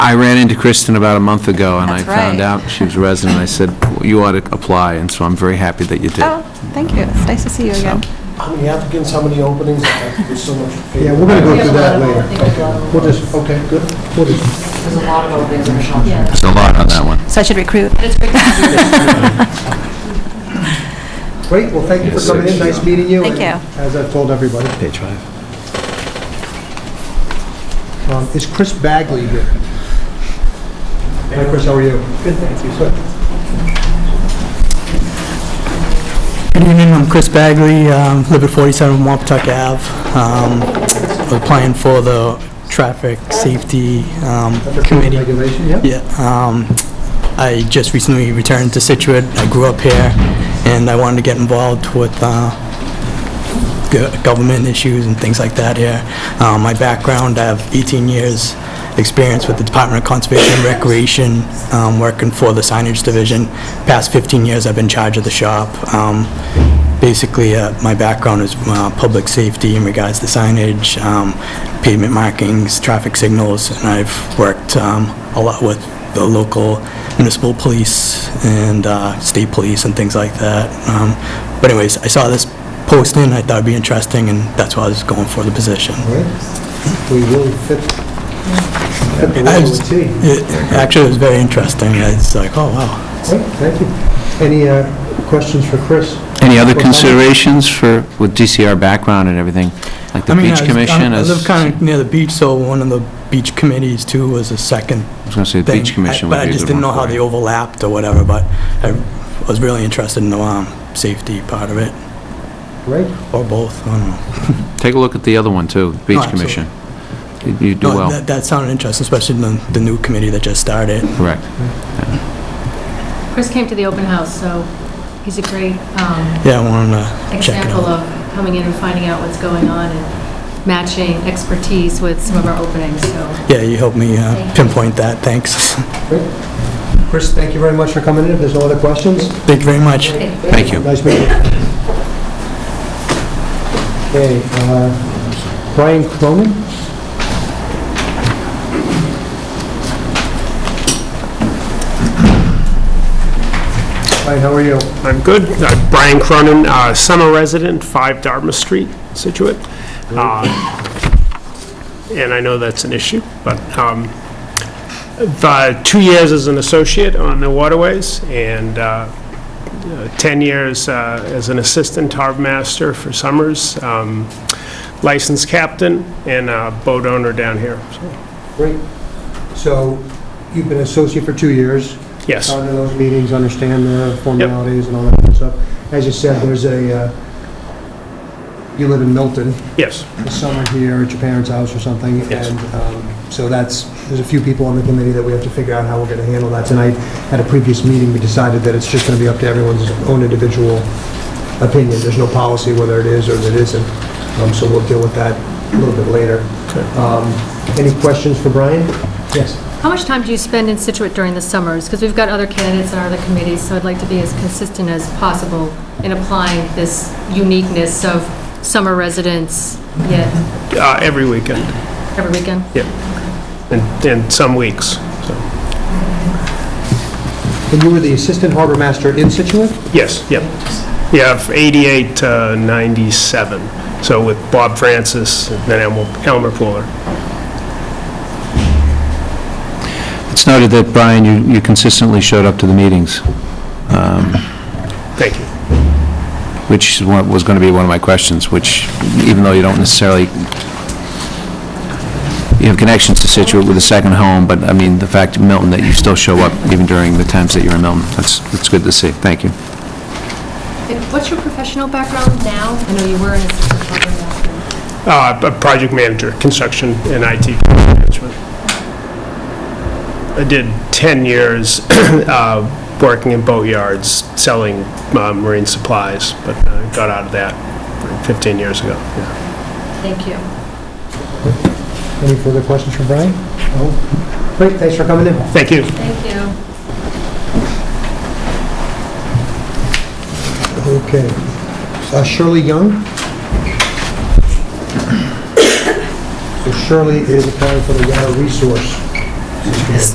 I ran into Kristen about a month ago, and I That's found right. out she was resident. I said, "Well, you ought to apply, and so I'm very happy that you did. Oh, thank you. It's nice to see you again. How many applicants, how many openings? There's so much. Yeah, we're going to go through that later. We'll just, okay, good. We'll just- There's a lot of openings in Ashland. Yeah. There's a lot on that one. So I should recruit. Great, well, thank you for coming in, nice meeting you. Thank and you. As I've told everybody. Page five. Um, Is Chris Bagley here? Hi, Chris, how are you? Good, thank you. Good evening, I'm Chris Bagley, um, live at 47 Wapatuck Ave. Um, I'm Applying for the Traffic Safety um, Committee. Regulation, yeah? Yeah, um, I just recently returned to Situate, I grew up here, and I wanted to get involved with uh, go- government issues and things like that here. Uh, My background, I have 18 years' experience with the Department of Conservation and Recreation, um, working for the signage division. Past 15 years, I've been in charge of the shop. Um, Basically, uh, my background is uh, public safety in regards to signage, um, pavement markings, traffic signals, and I've worked um, a lot with the local municipal police and uh, state police and things like that. Um, But anyways, I saw this posting, I thought it'd be interesting, and that's why I was going for the position. All right. We will fit, fit the role with tea. It- Actually, it was very interesting, it's like, oh, wow. Great, thank you. Any uh, questions for Chris? Any other Well, thank you. considerations for, with DCR background and everything, like the I mean, beach I was- commission? I is- live kind of near the beach, so one of the beach committees, too, was a second I was going to say, the thing. beach commission I- would be a good one. But I just didn't know for how you. they overlapped or whatever, but I was really interested in the um, safety part of it, Great. or both, I don't know. Take a look at the other one, too, Beach absolutely. Commission. You- You do No, well, that- That sounded interesting, especially the the new committee that just started. correct. Chris came to the open house, so he's a great um, Yeah, I wanted to check it example out. of coming in and finding out what's going on and matching expertise with some of our openings, so. Yeah, you helped me uh, Thank you. pinpoint that, thanks. Chris, thank you very much for coming in. If there's no other questions, Thank you very much. Thank you. Nice meeting you. Okay, uh, Brian Cronin? Brian, how are you? I'm good. Uh, Brian Cronin, uh, summer resident, 5 Dartmouth Street, Situate. Uh, And I know that's an issue, but um, the two years as an associate on the waterways and uh, uh, 10 years uh, as an assistant harbor master for summers, um, licensed captain, and a boat owner down here. So, Great. So you've been associate for two years. Yes. Gone to those meetings, understand the formalities and all that good stuff. As you said, there's a, uh, you live in Milton. Yes, the summer here at your parents' house or something. Yes. And um, so that's, there's a few people on the committee that we have to figure out how we're going to handle that tonight. At a previous meeting, we decided that it's just going to be up to everyone's own individual opinion. There's no policy whether it is or it isn't. Um, So we'll deal with that a little bit later. Um, Any questions for Brian? Yes. How much time do you spend in Situate during the summers? Because we've got other candidates on other committees, so I'd like to be as consistent as possible in applying this uniqueness of summer residents, yet uh, every weekend, every weekend. and and some weeks, so. And you were the assistant harbor master in Situate? Yes, yep. Yeah, f- 88 to 97, uh, so with Bob Francis, and then Elmer- Elmer Pooler. It's noted that, Brian, you you consistently showed up to the meetings, um, Thank you. which is what was going to be one of my questions, which, even though you don't necessarily, you have connections to Situate with a second home, but, I mean, the fact, Milton, that you still show up even during the times that you're in Milton, that's, that's good to see. Thank you. And What's your professional background now? I know you were an assistant program master. Uh, a Project manager, construction and IT management. I did 10 years uh, working in boatyards, selling uh, marine supplies, but uh, got out of that 15 years ago. yeah. Thank you. Any further questions for Brian? No? Great, thanks for coming in. Thank you. Thank you. Okay. Uh, Shirley Young? So Shirley is applying for the water resource